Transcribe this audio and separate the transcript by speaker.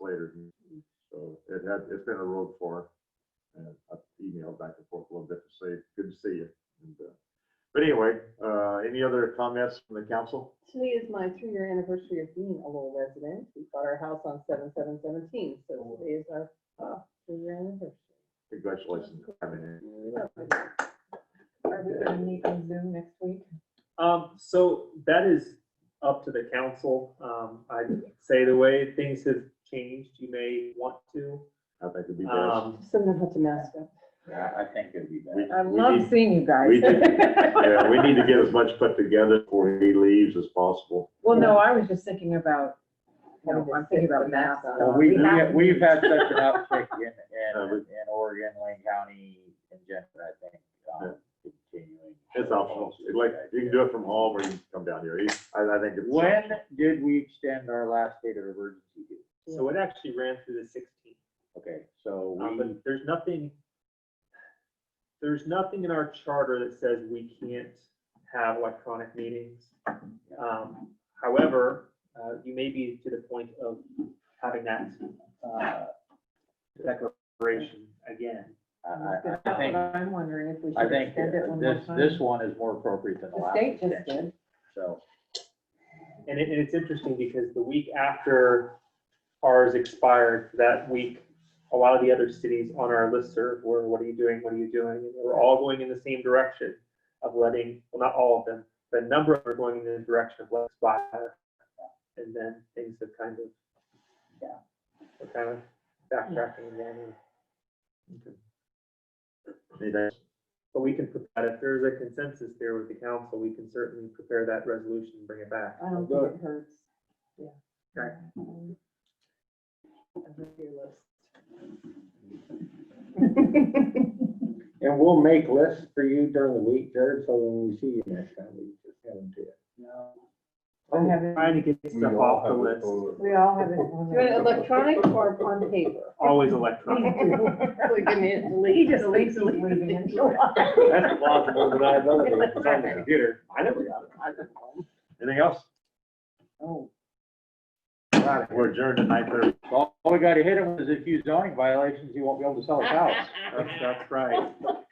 Speaker 1: later. So it had, it's been a road for her. And I've emailed back and forth a little bit to say, good to see you. And, uh, But anyway, uh, any other comments from the council?
Speaker 2: Today is my three-year anniversary of being a Lowell resident. We bought our house on seven, seven, seventeen, so today is our uh, three-year anniversary.
Speaker 1: Congratulations. on coming in.
Speaker 2: Are we gonna meet on Zoom next week?
Speaker 3: Um, so that is up to the council. Um, I'd say the way things have changed, you may want to.
Speaker 1: I think it'd be best.
Speaker 3: Um,
Speaker 2: Send them out to mask up.
Speaker 4: Yeah, I think it'd be
Speaker 1: We-
Speaker 4: better.
Speaker 5: I
Speaker 1: we
Speaker 5: love
Speaker 1: need-
Speaker 5: seeing you
Speaker 1: we
Speaker 5: guys.
Speaker 1: Yeah, we need to get as much put together before he leaves as possible.
Speaker 5: Well, no, I was just thinking about, you know,
Speaker 2: Having to
Speaker 5: I'm thinking
Speaker 2: sit
Speaker 5: about
Speaker 2: with
Speaker 5: masks.
Speaker 2: masks
Speaker 4: Well,
Speaker 2: on.
Speaker 4: Uh, we,
Speaker 5: We have-
Speaker 4: we- we've had such an uptick in,
Speaker 1: Uh,
Speaker 4: in,
Speaker 1: we-
Speaker 4: in Oregon, Lane County, in general, I think, um, continuing.
Speaker 1: It's optional. It's Like, you can do it from home or you can come down here. I, I think it's.
Speaker 4: When did we extend our last state of emergency to?
Speaker 3: so it actually ran through the sixteenth,
Speaker 4: Okay, so
Speaker 3: um,
Speaker 4: we,
Speaker 3: but there's nothing, there's nothing in our charter that says we can't have electronic meetings. Um, however, uh, you may be to the point of having that, uh, declaration again.
Speaker 4: I, I- I
Speaker 5: That's
Speaker 4: think,
Speaker 5: what I'm wondering if we
Speaker 4: I
Speaker 5: should
Speaker 4: think
Speaker 5: extend it one more
Speaker 4: this,
Speaker 5: time.
Speaker 4: this one is more appropriate than the
Speaker 5: The
Speaker 4: last.
Speaker 5: state just
Speaker 4: extension,
Speaker 5: did.
Speaker 4: So,
Speaker 3: And it, and it's interesting because the week after ours expired, that week, a lot of the other cities on our listserv were, what are you doing? What are you doing? And they were all going in the same direction of letting, well, not all of them, but a number of them are going in the direction of let's buy. And then things have kind of, yeah, we're kind of backtracking again.
Speaker 1: Anything?
Speaker 3: But we can, prepare if there's a consensus there with the council, we can certainly prepare that resolution, and bring it back.
Speaker 2: I don't think it hurts. Yeah.
Speaker 3: Okay.
Speaker 2: Um, I'm with your list.
Speaker 6: And we'll make lists for you during the week, Jared, so when we see you next time, we just have them to you.
Speaker 5: I have it-
Speaker 3: Trying to get stuff off the list.
Speaker 5: We all have it. on
Speaker 2: Do you want it
Speaker 5: there.
Speaker 2: electronic or on paper?
Speaker 3: Always electronic.
Speaker 2: We can
Speaker 5: He
Speaker 2: delete,
Speaker 5: just
Speaker 2: delete,
Speaker 5: thinks he's
Speaker 2: delete,
Speaker 5: moving
Speaker 2: delete.
Speaker 5: into it.
Speaker 6: That's plausible deniability, it's on the computer.
Speaker 1: I never got it. Anything else?
Speaker 5: Oh,
Speaker 1: We're adjourned at nine thirty.
Speaker 4: all all we gotta hit him is if you zoning violations, you won't be able to sell his house.
Speaker 3: That's, that's right.
Speaker 2: Oh,